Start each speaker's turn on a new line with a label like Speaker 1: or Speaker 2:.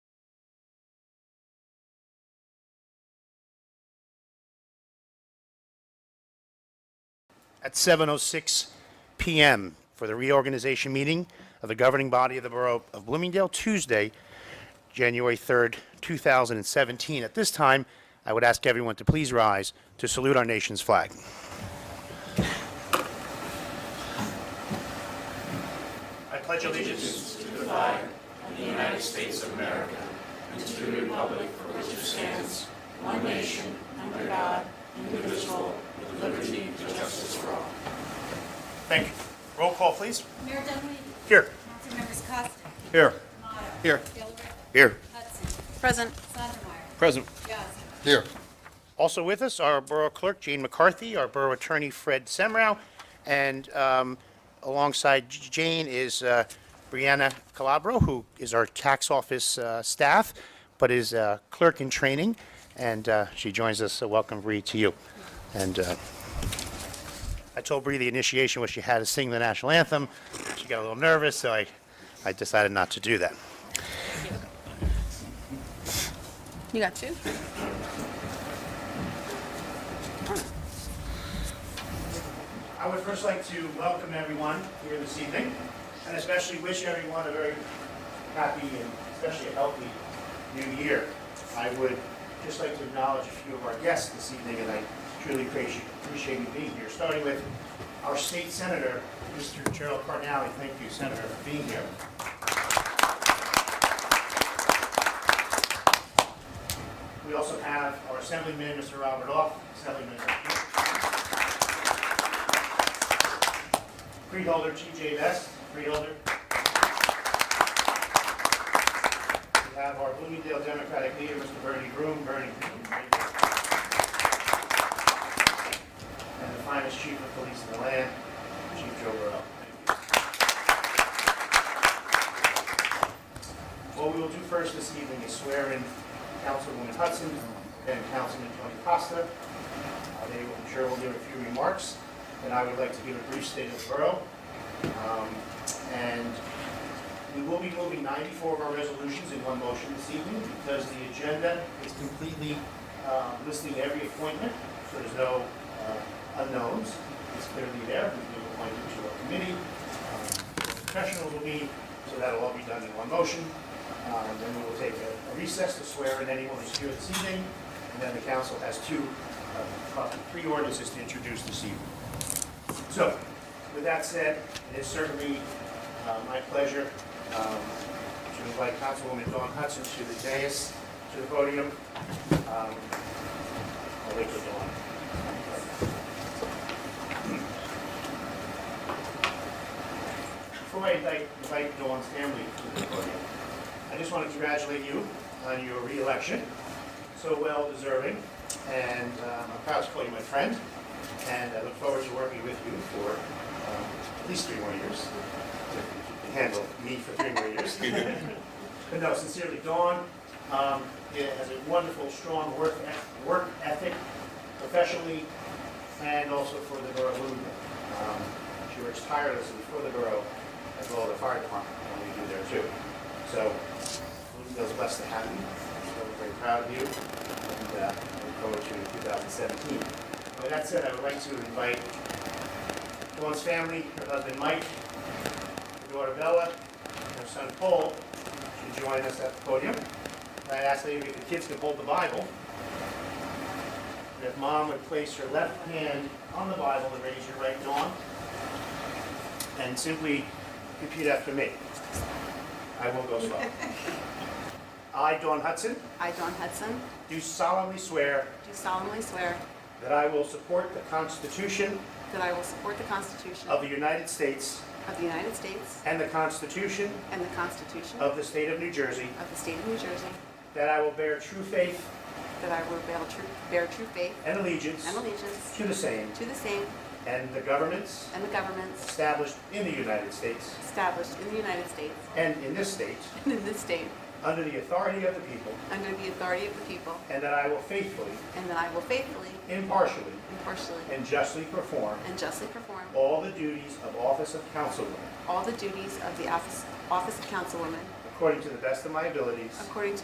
Speaker 1: at 7:06 PM for the reorganization meeting of the governing body of the Borough of Bloomingdale, Tuesday, January 3rd, 2017. At this time, I would ask everyone to please rise to salute our nation's flag. I pledge allegiance to the flag of the United States of America and to the republic for which it stands, one nation, under God, indivisible, with liberty and justice for all. Thank you. Roll call, please.
Speaker 2: Mayor Dunleavy.
Speaker 1: Here.
Speaker 2: Councilmembers Costa.
Speaker 3: Here.
Speaker 2: Tomato.
Speaker 3: Here.
Speaker 2: Delariva.
Speaker 3: Here.
Speaker 2: Hudson.
Speaker 4: Present.
Speaker 2: Sondemire.
Speaker 3: Present.
Speaker 2: Yazdi.
Speaker 3: Here.
Speaker 1: Also with us are Borough Clerk Jane McCarthy, our Borough Attorney Fred Semrau, and um, alongside J- Jane is uh, Brianna Calabro, who is our tax office uh, staff, but is uh, clerk in training, and uh, she joins us. So welcome, Bree, to you. And uh, I told Bree the initiation was she had to sing the national anthem. She got a little nervous, so I, I decided not to do that.
Speaker 4: You got two?
Speaker 1: I would first like to welcome everyone here this evening, and especially wish everyone a very happy and especially a healthy new year. I would just like to acknowledge a few of our guests this evening, and I truly appreciate, appreciate you being here, starting with our state senator, Mr. Gerald Carnally. Thank you, Senator, for being here. We also have our Assemblyman, Mr. Robert Off, Assemblyman. Freeholder T.J. Vest, freeholder. We have our Bloomingdale Democratic leader, Mr. Bernie Groom, Bernie. And the finest chief of police in the land, Chief Joe Burrow. What we will do first this evening is swear in Councilwoman Hudson and Councilman Tony Costa. Uh, They, will- I'm sure, will give a few remarks, and I would like to give a brief state of the borough. Um, And we will be moving 94 of our resolutions in one motion this evening because the agenda is completely uh, listing every appointment, so there's no uh, unknowns. It's clearly there, we do appoint each of our committee, um, professionals will be, so that'll all be done in one motion. Uh, And then we will take a recess to swear in anyone who's here this evening, and then the council has two, uh, uh, three ordinances to introduce this evening. So, with that said, it is certainly uh, my pleasure um, to invite Councilwoman Dawn Hudson to the dais, to the podium. Um, I'll wait for Dawn. Before I invite- invite Dawn's family to the podium, I just want to congratulate you on your reelection, so well deserving, and um, I'm proud to call you my friend and I look forward to working with you for um, at least three more years. If you can Handle me for three more years. But no, sincerely, Dawn um, yeah, has a wonderful, strong work eth- work ethic professionally and also for the borough of Bloomingdale. Um, She works tirelessly for the borough as well as the fire department, and we do there too. So Bloomingdale's blessed to have you. So We're very proud of you and uh, look forward to 2017. With that said, I would like to invite Dawn's family, her husband Mike, her daughter Bella, and her son Paul to join us at the podium. And I'd ask maybe if the kids could hold the Bible. And if mom would place her left hand on the Bible and raise your right, Dawn. And simply repeat after me. I will go slow. I, Dawn Hudson,
Speaker 4: I, Dawn Hudson,
Speaker 1: do solemnly swear
Speaker 4: do solemnly swear
Speaker 1: that I will support the Constitution
Speaker 4: that I will support the Constitution
Speaker 1: of the United States
Speaker 4: of the United States
Speaker 1: and the Constitution
Speaker 4: and the Constitution
Speaker 1: of the State of New Jersey,
Speaker 4: of the State of New Jersey,
Speaker 1: that I will bear true faith
Speaker 4: that I will bear true, bear true faith
Speaker 1: and allegiance
Speaker 4: and allegiance
Speaker 1: to the same
Speaker 4: to the same
Speaker 1: and the governments
Speaker 4: and the governments
Speaker 1: established in the United States
Speaker 4: established in the United States
Speaker 1: and in this state
Speaker 4: and in this state
Speaker 1: under the authority of the people,
Speaker 4: under the authority of the people,
Speaker 1: and that I will faithfully,
Speaker 4: and that I will faithfully,
Speaker 1: impartially,
Speaker 4: impartially,
Speaker 1: and justly perform
Speaker 4: and justly perform
Speaker 1: all the duties of office of councilman
Speaker 4: all the duties of the office office of councilwoman
Speaker 1: according to the best of my abilities,
Speaker 4: according to